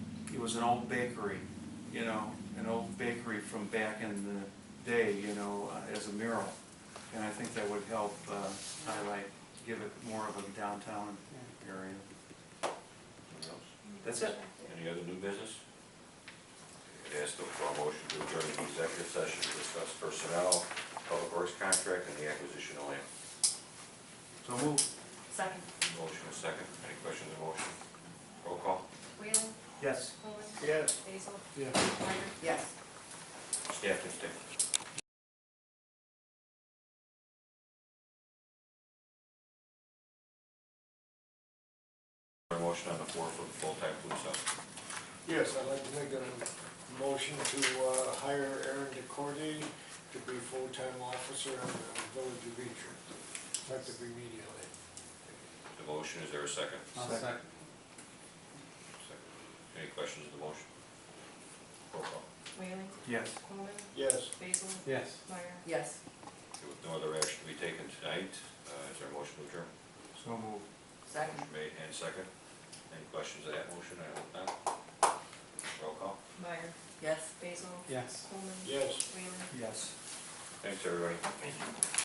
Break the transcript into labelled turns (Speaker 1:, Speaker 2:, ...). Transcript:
Speaker 1: was an old bakery, you know, an old bakery from back in the day, you know, uh, as a mural. And I think that would help uh, highlight, give it more of a downtown area.
Speaker 2: Anything else?
Speaker 1: That's it.
Speaker 2: Any other new business? Ask the for a motion to adjourn the executive session to discuss personnel, public works contract, and the acquisition of land.
Speaker 1: So move.
Speaker 3: Second.
Speaker 2: Motion is second. Any questions on the motion? Roll call.
Speaker 3: Whalen?
Speaker 1: Yes.
Speaker 3: Coleman?
Speaker 4: Yes.
Speaker 3: Basil?
Speaker 4: Yes.
Speaker 3: Meyer? Yes.
Speaker 2: Staff can stay. Our Motion on the floor for the full-time police officer.
Speaker 4: Yes, I'd like to make a motion to uh, hire Aaron DeCordy to be full-time officer in the village of Beecher, effective immediately.
Speaker 2: The motion, is there a second?
Speaker 1: Second.
Speaker 2: Second. Any questions on the motion? Roll call.
Speaker 3: Whalen?
Speaker 1: Yes.
Speaker 3: Coleman?
Speaker 4: Yes.
Speaker 3: Basil?
Speaker 5: Yes.
Speaker 3: Meyer?
Speaker 6: Yes.
Speaker 2: With no other action to be taken tonight, uh, is there a motion to adjourn?
Speaker 1: So move.
Speaker 6: Second.
Speaker 2: Motion Made and second. Any questions on that motion? I hope not. Roll call.
Speaker 3: Meyer?
Speaker 6: Yes.
Speaker 3: Basil?
Speaker 5: Yes.
Speaker 3: Coleman?
Speaker 4: Yes.
Speaker 3: Whalen?
Speaker 1: Yes.
Speaker 2: Thanks, everybody. Thank you.